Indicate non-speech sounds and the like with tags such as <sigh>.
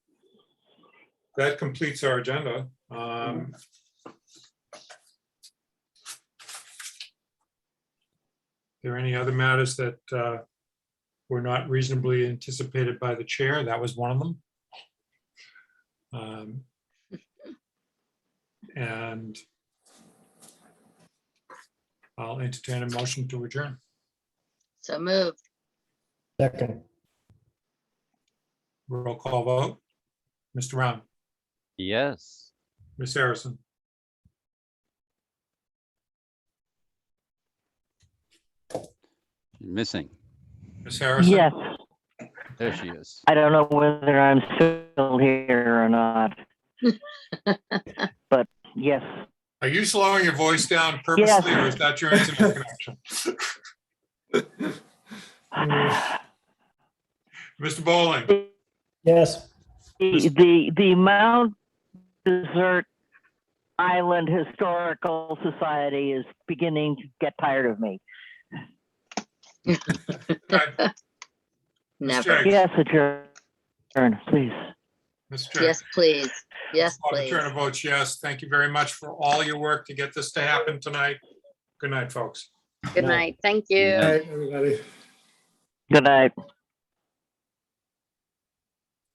that completes our agenda. Um, There any other matters that uh, were not reasonably anticipated by the chair? That was one of them. Um, And I'll entertain a motion to adjourn. So moved. Second, Roll call vote. Mr. Round, Yes. Ms. Harrison, Missing. Ms. Harrison. Yes, There she is. I don't know whether I'm still here or not. But yes, Are you slowing your voice down purposely or is that your <laughs> internet connection? Mr. Bowling, yes. the, the, the Mount Desert Island Historical Society is beginning to get tired of me. uh, Ms. Never. James, Yes, adjourn, please. Ms. James. Yes, please. Yes, Auditor please. Turner votes yes. Thank you very much for all your work to get this to happen tonight. Good night, folks. Good night. Thank you. Good night. everybody. Good night.